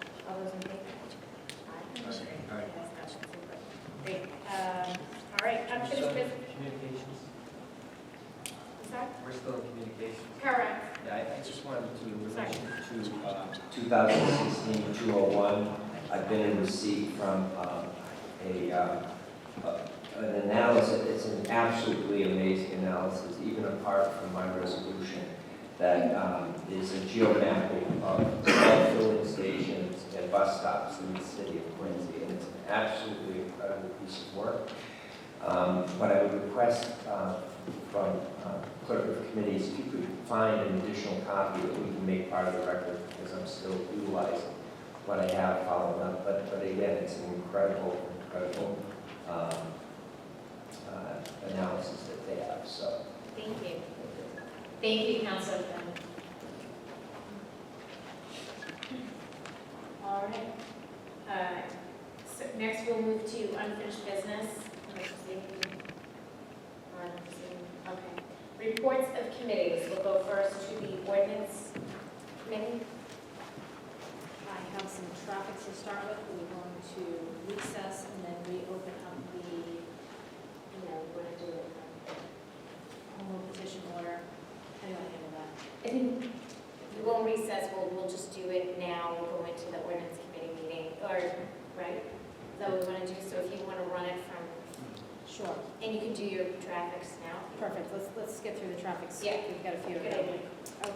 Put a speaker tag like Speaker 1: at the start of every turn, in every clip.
Speaker 1: Um,
Speaker 2: um, 2016-201. I've been in receipt from um, a, uh, a- an analysis, it's an absolutely amazing analysis, even apart from my resolution, that um, is a geomapping of all filling stations and bus stops in the city of Quincy, and it's an absolutely incredible piece of work. Um, What I would request uh, from uh, clerk of committees, if you could find an additional copy that we can make part of the record, because I'm still utilizing what I have following up, but, but again, it's an incredible, incredible um, uh, analysis that they have, so.
Speaker 1: Thank you. Thank you, Counselor Finn. All right. Uh, So next we'll move to unfinished business. Let's see. Uh, let's see. Okay. Reports of committees. We'll go first to the ordinance committee.
Speaker 3: I have some traffic to start with, we're going to recess and then reopen up the, you know, we're gonna do it. um, Home rule petition order, how do I handle that?
Speaker 1: I think we won't recess, we'll, we'll just do it now, we'll go into the ordinance committee meeting, or, right? Is that what we want to do? So if you want to run it from,
Speaker 3: Sure,
Speaker 1: and you can do your traffics now.
Speaker 3: perfect, let's, let's get through the traffic, so
Speaker 1: Yeah.
Speaker 3: we've got a few of
Speaker 1: Good
Speaker 3: them.
Speaker 1: idea.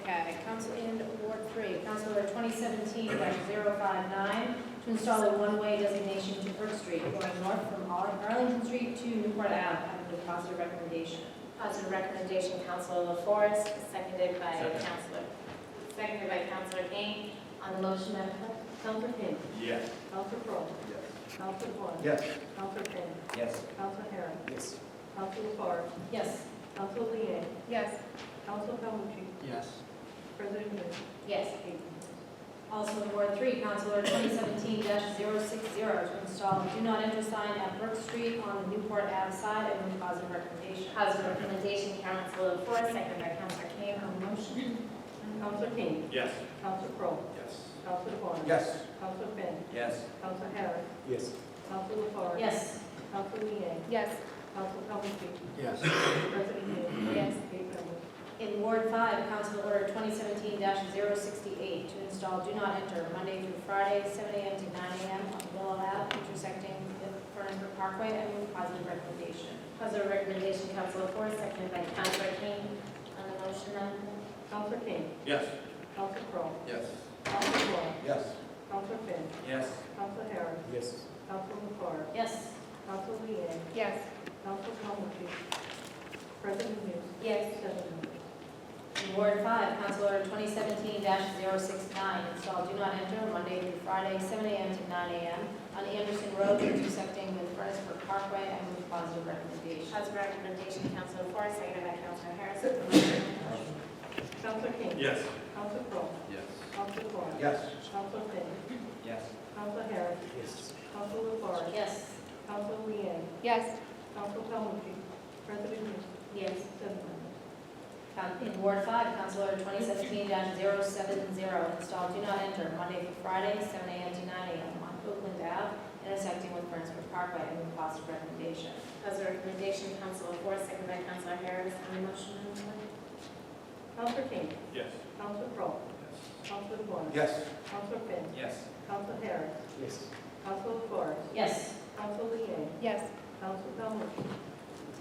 Speaker 3: Okay, council in Ward Three, council order twenty seventeen 59 to install a one-way designation to Brook Street going north from Ar- Arlington Street to Newport Ave. I would a positive recommendation.
Speaker 1: Positive recommendation, Counselor LaForest, seconded by Counselor, seconded by Counselor Kane. On the motion, Madam Clerk?
Speaker 3: Counselor Finn,
Speaker 4: Yes.
Speaker 3: Counselor Crowe, Counselor Vaughn.
Speaker 4: Yes.
Speaker 3: Counselor Finn,
Speaker 2: Yes,
Speaker 3: Counselor Harris,
Speaker 4: Yes.
Speaker 3: Counselor LaFarge. Yes. Counselor Liang,
Speaker 1: Yes.
Speaker 3: Counselor Calhoun,
Speaker 4: Yes.
Speaker 3: President Hughes.
Speaker 1: Yes.
Speaker 3: Also in Ward Three, Council Order twenty seventeen 60 to install a do not enter sign at Brook Street on the Newport Ave side. I move positive recommendation.
Speaker 1: Positive recommendation, Counselor LaForse, seconded by Counselor Kane. On the motion?
Speaker 3: Counselor King,
Speaker 4: Yes.
Speaker 3: Counselor Crowe,
Speaker 4: Yes.
Speaker 3: Counselor Vaughn.
Speaker 4: Yes.
Speaker 3: Counselor Finn,
Speaker 2: yes,
Speaker 3: Counselor Harris,
Speaker 4: Yes.
Speaker 3: Counselor LaFarge.
Speaker 1: Yes.
Speaker 3: Counselor Liang,
Speaker 1: Yes.
Speaker 3: Counselor Calhoun,
Speaker 4: Yes.
Speaker 3: President Hughes.
Speaker 1: Yes.
Speaker 3: Eight members. In Ward Five, Council Order twenty seventeen 68 to install do not enter Monday through Friday, seven AM to nine AM on Willow Ave intersecting the Furnace Parkway. I move positive recommendation.
Speaker 1: Positive recommendation, Counselor LaForse, seconded by Counselor Kane. On the motion, Madam Clerk?
Speaker 3: Counselor King,
Speaker 4: Yes.
Speaker 3: Counselor Crowe,
Speaker 4: Yes.
Speaker 3: Counselor Vaughn,
Speaker 4: Yes.
Speaker 3: Counselor Finn,
Speaker 4: Yes.
Speaker 3: Counselor Harris,
Speaker 4: Yes.
Speaker 3: Counselor LaFarge,
Speaker 1: Yes.
Speaker 3: Counselor Liang,
Speaker 1: Yes.
Speaker 3: Counselor Calhoun, President Hughes.
Speaker 1: Yes.
Speaker 3: Seven members. In Ward Five, Council Order twenty seventeen 69 install do not enter Monday through Friday, seven AM to nine AM on Anderson Road intersecting with Furnace Brook Parkway. I move positive recommendation.
Speaker 1: Positive recommendation, Counselor LaForse, seconded by Counselor Harris. On the motion, Madam Clerk?
Speaker 3: Counselor King,
Speaker 4: Yes.
Speaker 3: Counselor Crowe,
Speaker 4: Yes.
Speaker 3: Counselor Vaughn,
Speaker 4: Yes.
Speaker 3: Counselor Finn,
Speaker 2: yes.
Speaker 3: Counselor Harris,
Speaker 4: Yes.
Speaker 3: Counselor LaFarge,
Speaker 1: Yes.
Speaker 3: Counselor Liang,
Speaker 1: Yes.
Speaker 3: Counselor Calhoun, President Hughes.
Speaker 1: Yes.
Speaker 3: Seven members. Um, In Ward Five, Council Order twenty seventeen 70 install do not enter Monday through Friday, seven AM to nine AM on Oakland Ave, intersecting with Burnsford Parkway. I move positive recommendation.
Speaker 1: Positive recommendation, Counselor LaForce, seconded by Counselor Harris. On the motion, Madam Clerk?
Speaker 3: Counselor King,
Speaker 4: Yes.
Speaker 3: Counselor Crowe, Counselor Vaughn,
Speaker 4: Yes.
Speaker 3: Counselor Finn,
Speaker 2: Yes.
Speaker 3: Counselor Harris,
Speaker 4: Yes.
Speaker 3: Counselor LaFarge,
Speaker 1: Yes.
Speaker 3: Counselor Liang,
Speaker 1: Yes.
Speaker 3: Counselor Calhoun,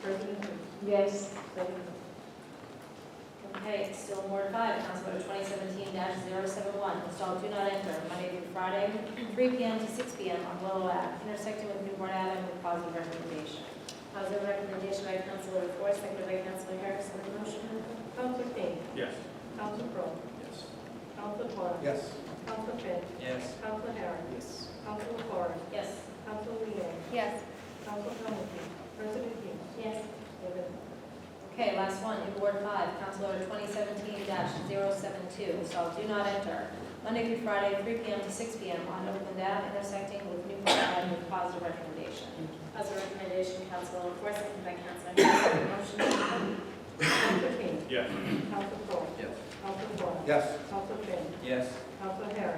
Speaker 3: President Hughes.
Speaker 1: Yes.
Speaker 3: Seven members.
Speaker 1: Okay, still Ward five, Council Order twenty seventeen 71 install do not enter Monday through Friday, three P M to six P M on Willow Ave, intersecting with Newport Ave with positive recommendation. Positive recommendation by Councilor LaFors, seconded by Councilor Harris, on the motion.
Speaker 3: Counselor King,
Speaker 4: Yes.
Speaker 3: Counselor Crowe,
Speaker 4: Yes.
Speaker 3: Counselor Vaughn,
Speaker 4: Yes.
Speaker 3: Counselor Finn,
Speaker 2: Yes.
Speaker 3: Counselor Harris,
Speaker 4: Yes.
Speaker 3: Counselor LaFarge,
Speaker 1: Yes.
Speaker 3: Counselor Liang,
Speaker 1: Yes.
Speaker 3: Counselor Calhoun, President Hughes.
Speaker 1: Yes.
Speaker 3: Seven members.
Speaker 1: Okay, last one, in Ward five, Council Order twenty seventeen 72 install do not enter Monday through Friday, three P M to six P M on Oakland Ave, intersecting with Newport Ave with positive recommendation. Positive recommendation, Council LaFors, seconded by Council Harris, on the motion.
Speaker 3: Counselor King,
Speaker 4: Yes.
Speaker 3: Counselor Crowe,
Speaker 4: Yes.
Speaker 3: Counselor Vaughn,
Speaker 4: Yes.
Speaker 3: Counselor Finn,
Speaker 2: Yes.
Speaker 3: Counselor Harris.